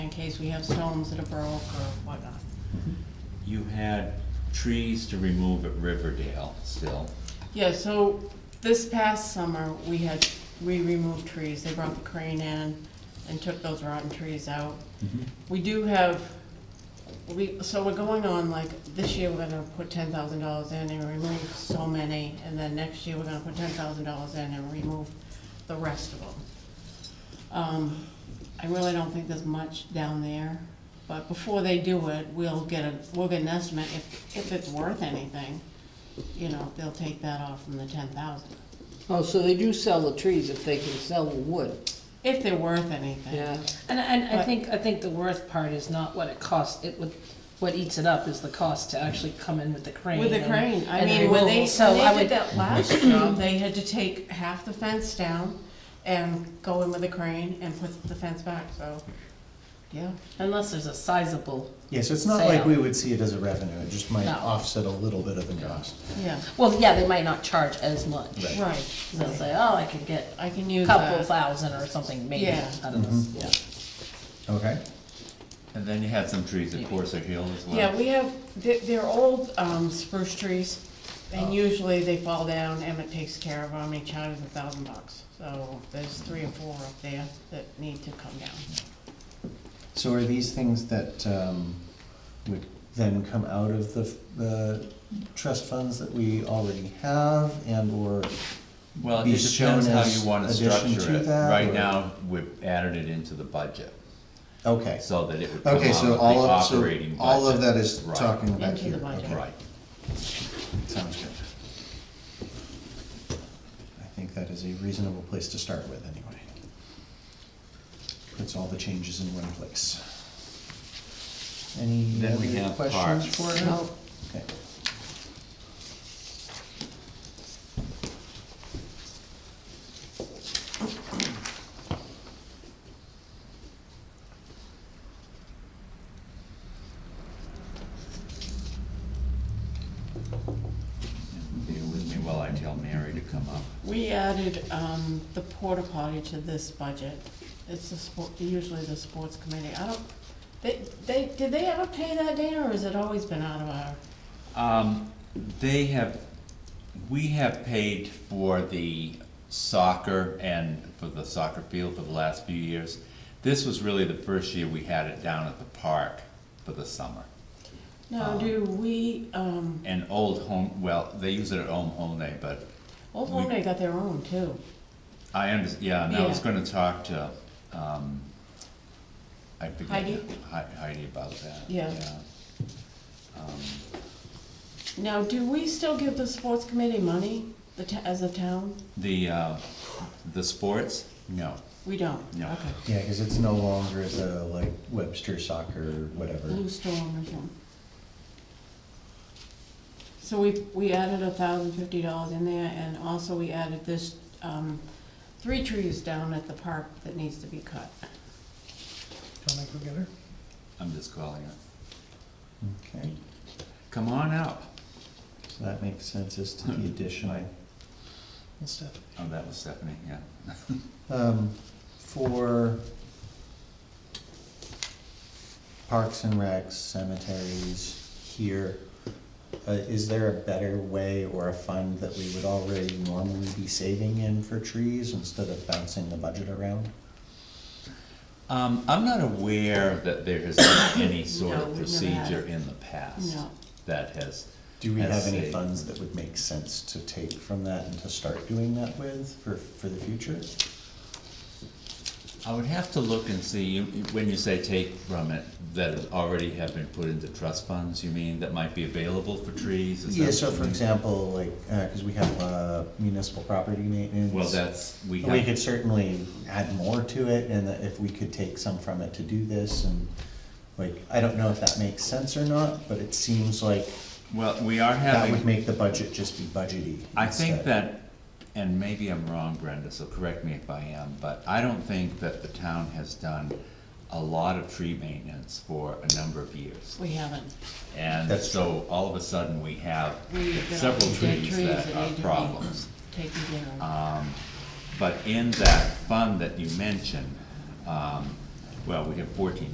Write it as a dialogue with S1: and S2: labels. S1: case we have stones that are broke or whatnot.
S2: You had trees to remove at Riverdale still.
S1: Yeah, so this past summer, we had, we removed trees, they brought the crane in and took those rotten trees out. We do have, we, so we're going on, like, this year, we're gonna put ten thousand dollars in and remove so many, and then next year, we're gonna put ten thousand dollars in and remove the rest of them. Um, I really don't think there's much down there, but before they do it, we'll get a, we'll get an estimate if, if it's worth anything. You know, they'll take that off from the ten thousand,
S3: Oh, so they do sell the trees if they can sell the wood,
S1: if they're worth anything.
S3: yeah.
S4: And, and I
S1: But-
S4: think, I think the worth part is not what it costs, it would, what eats it up is the cost to actually come in with the crane.
S1: With a
S4: and-
S1: crane, I
S4: and the
S1: mean, when they,
S4: removal. So
S1: when
S4: I
S1: they
S4: would,
S1: did that last job, they had to take half the fence down and go in with a crane and put the fence back, so, yeah.
S4: unless there's a sizable,
S5: Yeah, so it's not like
S4: Sale.
S5: we would see it as a revenue, it just might
S4: No.
S5: offset a little bit of the cost.
S1: Yeah,
S4: well, yeah, they might not charge as much.
S5: Right.
S1: right,
S4: They'll say, oh, I could get
S1: I can
S4: a
S1: use
S4: couple
S1: that.
S4: thousand or something maybe
S1: Yeah.
S4: out of this, yeah.
S5: Okay,
S2: And then you had some trees at Corsica Hill as well.
S1: Yeah, we have, they're, they're old, um, spruce trees, and usually they fall down, Emmett takes care of them, he charges a thousand bucks. So there's three or four up there that need to come down.
S5: so are these things that, um, would then come out of the, the trust funds that we already have and or?
S2: Well,
S5: be
S2: it depends
S5: shown
S2: how
S5: as
S2: you wanna
S5: addition
S2: structure
S5: to
S2: it.
S5: that,
S2: Right
S5: or-
S2: now, we've added it into the budget,
S5: Okay,
S2: so that it would come out
S5: okay,
S2: of the
S5: so all of, so
S2: operating budget.
S5: all of that is
S2: Right,
S5: talking about
S1: Into the
S5: here,
S1: budget.
S5: okay,
S2: Right.
S5: sounds good. I think that is a reasonable place to start with anyway. Puts all the changes in one place. Any
S2: Then we
S5: other
S2: have parks.
S5: questions for her?
S3: No,
S5: Okay.
S2: Bear with me while I tell Mary to come up.
S1: We added, um, the porta potty to this budget. It's the sport, usually the sports committee. I don't, they, they, did they ever pay that data, or has it always been out of our?
S2: Um, they have, we have paid for the soccer and for the soccer field for the last few years. This was really the first year we had it down at the park for the summer.
S1: No, do we, um,
S2: And Old Home, well, they use it at Old Home Day, but
S1: Old
S2: We-
S1: Home Day got their own too.
S2: I under, yeah, and I was
S1: Yeah.
S2: gonna talk to, um, I forget.
S1: Heidi?
S2: Hei- Heidi about that.
S1: Yeah. Now, do we still give the sports committee money, the, ta- as a town?
S2: The, uh, the sports, no,
S1: We don't?
S2: No.
S1: Okay.
S5: Yeah, because it's no longer the like Webster soccer, whatever.
S1: Blue Storm or something. So we, we added a thousand fifty dollars in there, and also we added this, um, three trees down at the park that needs to be cut.
S2: I'm just calling it.
S5: Okay,
S2: Come on out.
S5: so that makes sense as to the additional.
S2: Oh, that was Stephanie, yeah.
S5: Um, for parks and recs, cemeteries here, uh, is there a better way or a fund that we would already normally be saving in for trees instead of bouncing the budget around?
S2: Um, I'm not aware that there has been any sort
S1: No,
S2: of
S1: we've never had
S2: procedure
S1: it.
S2: in the past
S1: No.
S2: that has.
S5: Do we have
S2: has
S5: any
S2: a-
S5: funds that would make sense to take from that and to start doing that with for, for the future?
S2: I would have to look and see, you- when you say take from it, that already have been put into trust funds, you mean, that might be available for trees? Is that
S5: Yeah, so
S2: what you
S5: for
S2: mean?
S5: example, like, uh 'cause cause we have, uh, municipal property maintenance.
S2: Well, that's, we
S5: We could
S2: have,
S5: certainly add more to it, and that if we could take some from it to do this, and, like, I don't know if that makes sense or not, but it seems like
S2: well, we are
S5: that would
S2: having,
S5: make the budget just be budgety.
S2: I think
S5: instead.
S2: that, and maybe I'm wrong, Brenda, so correct me if I am, but I don't think that the town has done a lot of tree maintenance for a number of years.
S1: We haven't.
S2: And
S5: That's
S2: so all of a sudden, we have
S1: We've got
S2: several
S1: dead
S2: trees that are
S1: need to be
S2: problems.
S1: Taken care of.
S2: Um, But in that fund that you mentioned, um, well, we have fourteen